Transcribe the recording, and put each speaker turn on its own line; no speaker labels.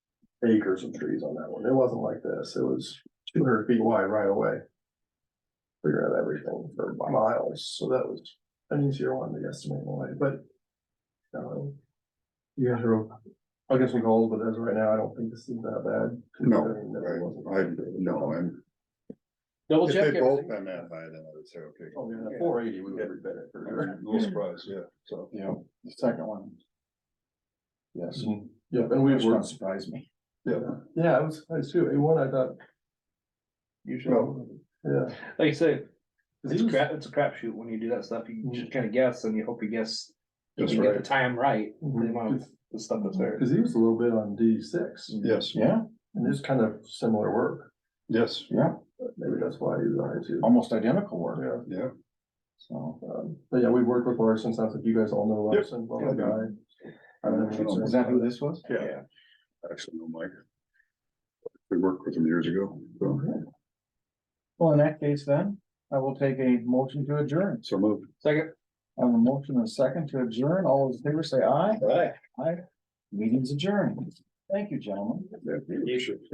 acres of trees on that one. It wasn't like this. It was two hundred feet wide right away. Figure out everything for miles, so that was an easier one to estimate in a way, but. um, You guys are, I guess some goals, but as of right now, I don't think this is that bad.
No,
considering that it wasn't-
I, I, no, I'm,
Double
if
check
they both been
everything.
that high, then I would say, okay.
Oh, yeah, four eighty, we would have been it for sure.
A little surprised, yeah, so.
Yeah, the second one. Yes,
Yeah, and we
which one
were,
surprised me.
yeah, I was, I was too, A one, I thought. Usually, yeah.
Like you say, it's
He was-
crap, it's a crapshoot when you do that stuff. You just kind of guess and you hope you guess. You
Mm. That's
can get the
right, Mm.
time right, the
Mhm.
amount of the stuff that's there.
Cause he was a little bit on D six,
yes,
Yeah,
and it's kind of similar work,
yes,
yeah,
maybe that's why he was on it too.
almost identical work,
Yeah,
yeah,
so.
um, but yeah, we worked with Larson, sounds like you guys all know
Yep.
Larson, well, the guy. Um,
Is that who this was?
Yeah. actually, no, Mike. We worked with them years ago, so,
Well, in that case then, I will take a motion to adjourn.
so moved.
Second.
I have a motion and a second to adjourn. All those in favor say aye. Aye. Aye. Meeting's adjourned. Thank you, gentlemen.
Yeah, we should-